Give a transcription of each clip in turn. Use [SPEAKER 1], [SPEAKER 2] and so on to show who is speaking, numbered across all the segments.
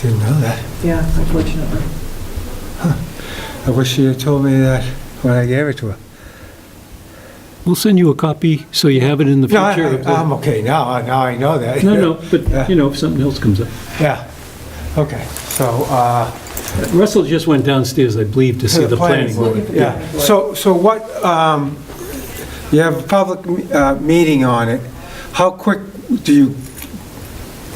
[SPEAKER 1] Didn't know that.
[SPEAKER 2] Yeah, unfortunately.
[SPEAKER 1] I wish she had told me that when I gave it to her.
[SPEAKER 3] We'll send you a copy so you have it in the
[SPEAKER 1] No,
[SPEAKER 3] future.
[SPEAKER 1] I-
[SPEAKER 3] of the-
[SPEAKER 1] I'm okay now, I- now I know that.
[SPEAKER 3] No, no, but, you know, if something else comes up.
[SPEAKER 1] Yeah, okay, so, uh,
[SPEAKER 3] Russell just went downstairs, I believe, to see the planning board.
[SPEAKER 1] Yeah, so, so what, um, you have a public uh, meeting on it, how quick do you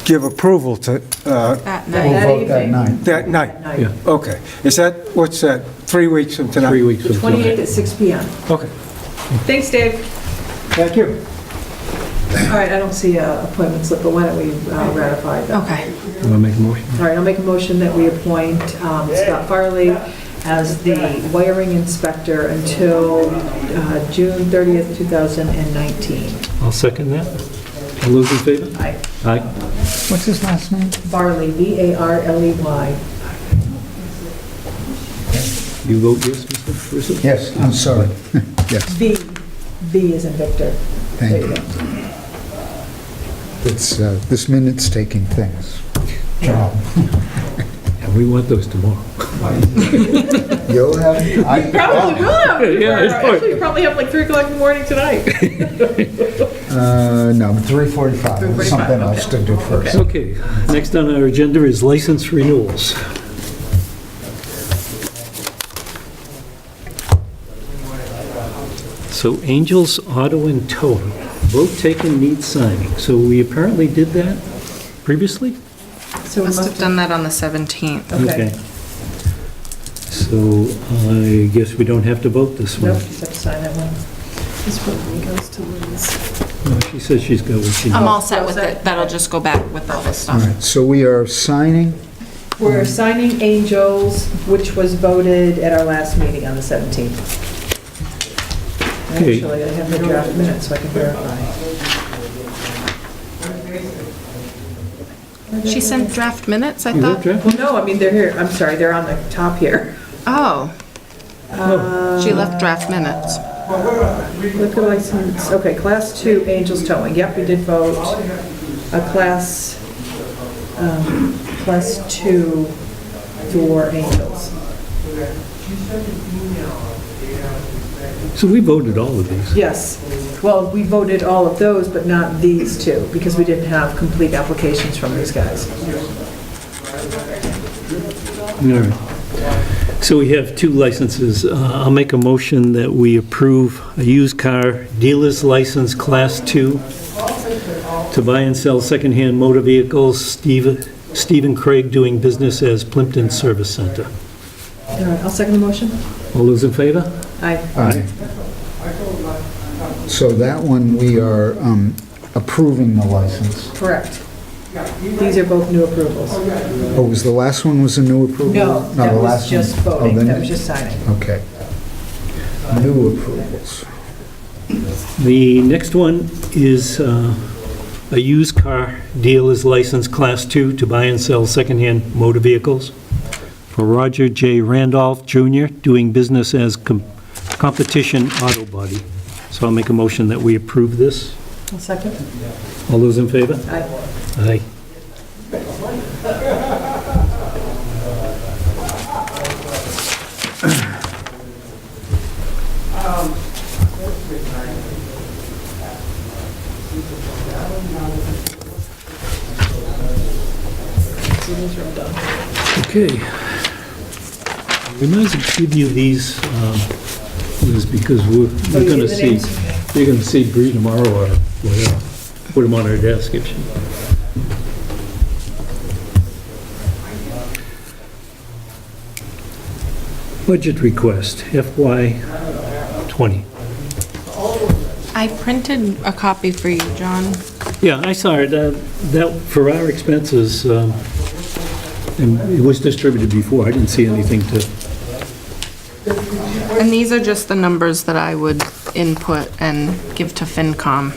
[SPEAKER 1] give approval to, uh,
[SPEAKER 4] That
[SPEAKER 2] That
[SPEAKER 4] night.
[SPEAKER 2] evening.
[SPEAKER 1] that night?
[SPEAKER 2] Night.
[SPEAKER 3] Yeah,
[SPEAKER 1] Okay, is that, what's that, three weeks from tonight?
[SPEAKER 3] three weeks
[SPEAKER 2] The
[SPEAKER 3] from tonight.
[SPEAKER 2] 28th at 6 PM.
[SPEAKER 1] Okay,
[SPEAKER 4] Thanks, Dave.
[SPEAKER 1] thank you.
[SPEAKER 2] All right, I don't see a appointment slip, but why don't we uh, ratify that?
[SPEAKER 4] Okay.
[SPEAKER 3] Want to make a motion?
[SPEAKER 2] All right, I'll make a motion that we appoint um, Scott Farley as the wiring inspector until uh, June 30th, 2019.
[SPEAKER 3] I'll second that. All those in favor?
[SPEAKER 2] Aye.
[SPEAKER 3] Aye.
[SPEAKER 5] What's his last name?
[SPEAKER 2] Farley, E B-A-R-L-E-Y.
[SPEAKER 3] You vote yes, Mr. Russell?
[SPEAKER 5] Yes, I'm sorry. Yes,
[SPEAKER 2] V, V is in Victor.
[SPEAKER 5] thank you. It's, uh, this minute's taking things. Job.
[SPEAKER 3] And we want those tomorrow.
[SPEAKER 5] You'll have, I,
[SPEAKER 4] Probably will have.
[SPEAKER 3] Yeah, it's fine.
[SPEAKER 4] Actually, you probably have like 3 o'clock in the morning tonight.
[SPEAKER 5] uh, no, 3:45, There's
[SPEAKER 4] 3:45,
[SPEAKER 5] something else to do first.
[SPEAKER 3] Okay, next on our agenda is license renewals. So Angels Auto and Towing, vote taken needs signing. So we apparently did that previously?
[SPEAKER 2] So we
[SPEAKER 4] Must have done that on the 17th.
[SPEAKER 2] Okay.
[SPEAKER 3] So I guess we don't have to vote this one.
[SPEAKER 2] Nope, just have to sign that one. This one goes to Liz.
[SPEAKER 3] No, She says she's got what she
[SPEAKER 4] I'm
[SPEAKER 3] needs.
[SPEAKER 4] all set with it. That'll just go back with all this
[SPEAKER 5] All
[SPEAKER 4] stuff.
[SPEAKER 5] right, so we are signing,
[SPEAKER 2] We're signing Angels, which was voted at our last meeting on the 17th.
[SPEAKER 3] Okay.
[SPEAKER 2] Actually, I have the draft minutes, so I can verify.
[SPEAKER 4] She sent draft minutes, I
[SPEAKER 3] You got
[SPEAKER 4] thought?
[SPEAKER 3] draft?
[SPEAKER 2] Well, Oh, no, I mean, they're here, I'm sorry, they're on the top here.
[SPEAKER 4] Oh. She left draft minutes.
[SPEAKER 2] Liquor license, okay, Class 2 Angels Towing, yep, we did vote. A Class, um, Class 2 door Angels.
[SPEAKER 3] So we voted all of these.
[SPEAKER 2] Yes, well, we voted all of those, but not these two, because we didn't have complete applications from these guys.
[SPEAKER 3] All right. So we have two licenses. Uh, I'll make a motion that we approve a used car dealer's license, Class 2, to buy and sell secondhand motor vehicles, Steve- Stephen Craig doing business as Plimpton Service Center.
[SPEAKER 2] All right, I'll second the motion.
[SPEAKER 3] All those in favor?
[SPEAKER 2] Aye.
[SPEAKER 5] Aye. So that one, we are um, approving the license.
[SPEAKER 2] Correct. These are both new approvals.
[SPEAKER 5] Oh, was the last one was a new approval?
[SPEAKER 2] No,
[SPEAKER 5] the
[SPEAKER 2] that was
[SPEAKER 5] last one-
[SPEAKER 2] just
[SPEAKER 5] oh,
[SPEAKER 2] voting,
[SPEAKER 5] then
[SPEAKER 2] that
[SPEAKER 5] it-
[SPEAKER 2] was just signing.
[SPEAKER 5] Okay. New approvals.
[SPEAKER 3] The next one is uh, a used car dealer's license, Class 2, to buy and sell secondhand motor vehicles for Roger J. Randolph Jr., doing business as Com- Competition Auto Body. So I'll make a motion that we approve this.
[SPEAKER 2] I'll second.
[SPEAKER 3] All those in favor?
[SPEAKER 2] Aye.
[SPEAKER 3] Aye.
[SPEAKER 2] So these are all done.
[SPEAKER 3] Okay. We might as well give you these, um, Liz, because we're
[SPEAKER 2] Oh,
[SPEAKER 3] we're
[SPEAKER 2] you
[SPEAKER 3] going to
[SPEAKER 2] did the
[SPEAKER 3] see,
[SPEAKER 2] names?
[SPEAKER 3] you're going to see Bree tomorrow or whatever. Put them on our desk if she... Budget request FY '20.
[SPEAKER 4] I printed a copy for you, John.
[SPEAKER 3] Yeah, I saw it. uh, That, for our expenses, um, and it was distributed before. I didn't see anything to...
[SPEAKER 4] And these are just the numbers that I would input and give to FinCom.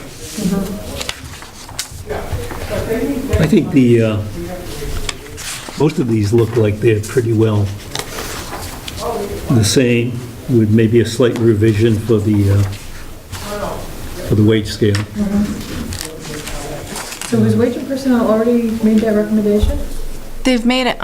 [SPEAKER 3] I think the, uh, most of these look like they're pretty well the same, with maybe a slight revision for the, uh, for the wage scale.
[SPEAKER 2] So has wage and personnel already made that recommendation?
[SPEAKER 4] They've made it